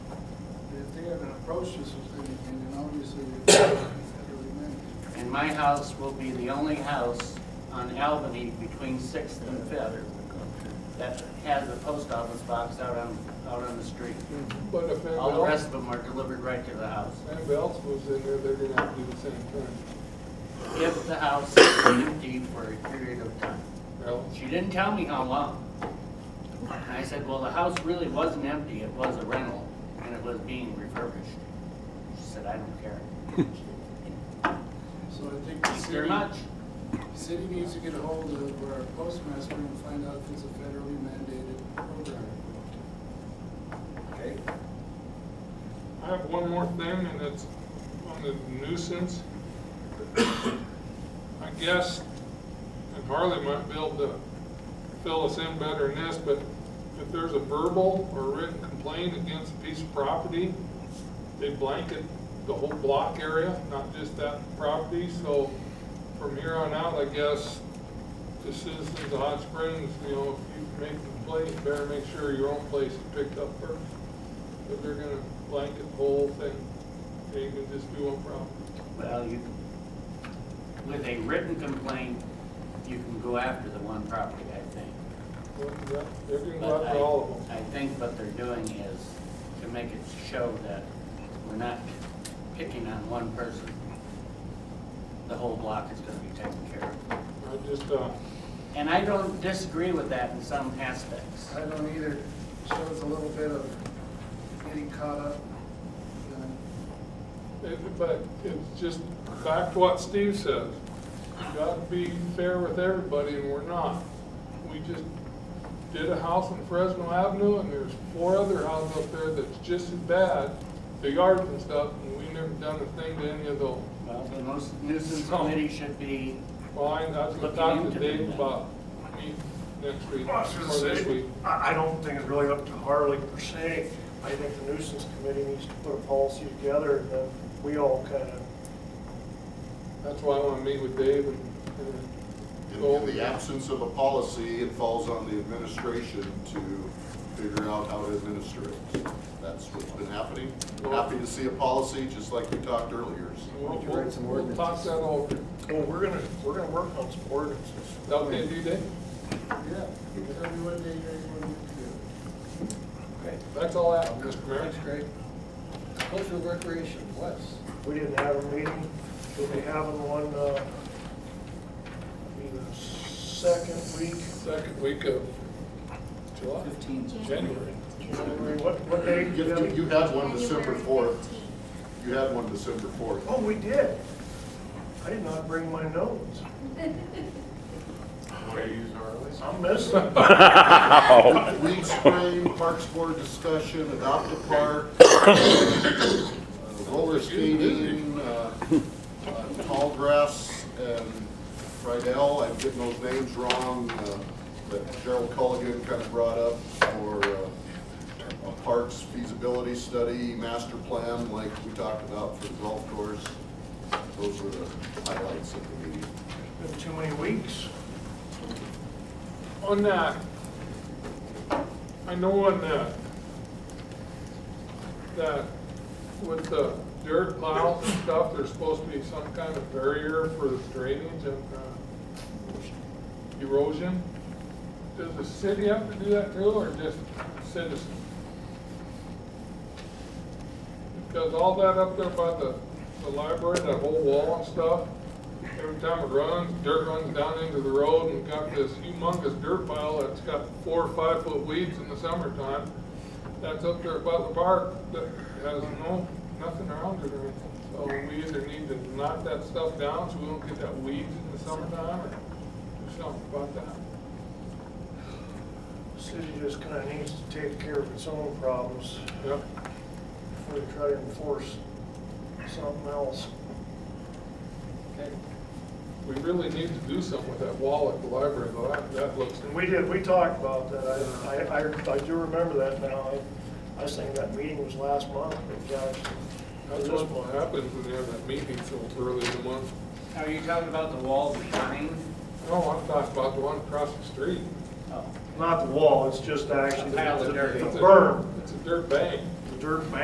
approached us was good, and then obviously we had to remain. And my house will be the only house on Albany between Sixth and Fifth that has a post office box out on, out on the street. But if All the anyone rest else, of them are delivered right to the house. if anyone else moves in there, they're gonna have to do the same thing. If the house is empty for a period of time. Well, She didn't tell me how long. And I said, well, the house really wasn't empty, it was a rental, and it was being refurbished. She said, I don't care So I think the very city, much. the city needs to get a hold of our postmaster and find out if it's a federally mandated program. Okay. I have one more thing, and it's on the nuisance. I guess, and Harley might be able to fill us in better than this, but if there's a verbal or written complaint against a piece of property, they blanket the whole block area, not just that property, so from here on out, I guess, the citizens of Hot Springs, you know, if you make a complaint, you better make sure your own place is picked up first. But they're gonna blanket the whole thing, and you can just do one problem. Well, you, with a written complaint, you can go after the one property, I think. They're gonna go But after I- all of them. I think what they're doing is to make it show that we're not picking on one person. The whole block is gonna be taken care of. I just, uh, And I don't disagree with that in some aspects. I don't either, shows a little bit of getting caught up. uh, it- but it's just back to what Steve says. You gotta be fair with everybody, and we're not. We just did a house on Fresno Avenue, and there's four other houses up there that's just as bad, the yards and stuff, and we never done a thing to any of those. Well, the most nuisance committee should be, Fine, I was gonna talk to Dave about me next week, Well, I was or gonna this say, week. I, I don't think it's really up to Harley per se. I think the nuisance committee needs to put a policy together and then we all kind of, That's why I want to meet with Dave and, In- and go In over the the absence of a policy, it falls on the administration to figure out how to administer it. That's what's been happening. Happy to see a policy, just like we talked earlier. We'll, we'll we'll talk that over. well, we're gonna, we're gonna work on some ordinances. Is that okay with you, Dave? Yeah, tell me what day you guys want me That's all I have, Mr. to do. Mayor. That's great. Cultural recreation, Wes. We didn't have a meeting, we'll be having one, uh, be the second week, Second week of July, fifteen, January. January, what, what day did you have? You it? had one December fourth. You had one December fourth. Oh, we did. I did not bring my notes. I'm missing. Weed spray, parks board discussion, adopt a park, uh, roller skating, uh, uh, tall grass, and Friedel, I'm getting those names wrong, uh, that Gerald Culligan kind of brought up for uh, a parks feasibility study, master plan, like we talked about for the golf course. Those were the highlights of the meeting. Been too many weeks. On that, I know on that, that with the dirt piles and stuff, there's supposed to be some kind of barrier for the drainage and uh, erosion. Does the city have to do that too, or just citizens? Because all that up there by the, the library, that whole wall and stuff, every time it runs, dirt runs down into the road and got this humongous dirt pile that's got four or five foot weeds in the summertime. That's up there by the park that has no, nothing around it or anything. So we either need to knock that stuff down so we don't get that weeds in the summertime or do something about that. The City just kind of needs to take care of its own problems Yep. before they try to enforce something else. We really need to do something with that wall at the library, though. That, that looks. And we did, we talked about that. I, I, I- I do remember that now. I- I was thinking that meeting was last month, but gosh, that That's was what this month. happens when you have that meeting so early in the month. Are you talking about the wall behind? No, I'm talking about the one across the street. Oh. Not the wall, it's just actually A pile of the dirt. the It's a- berm, It's a dirt bank. the dirt bank.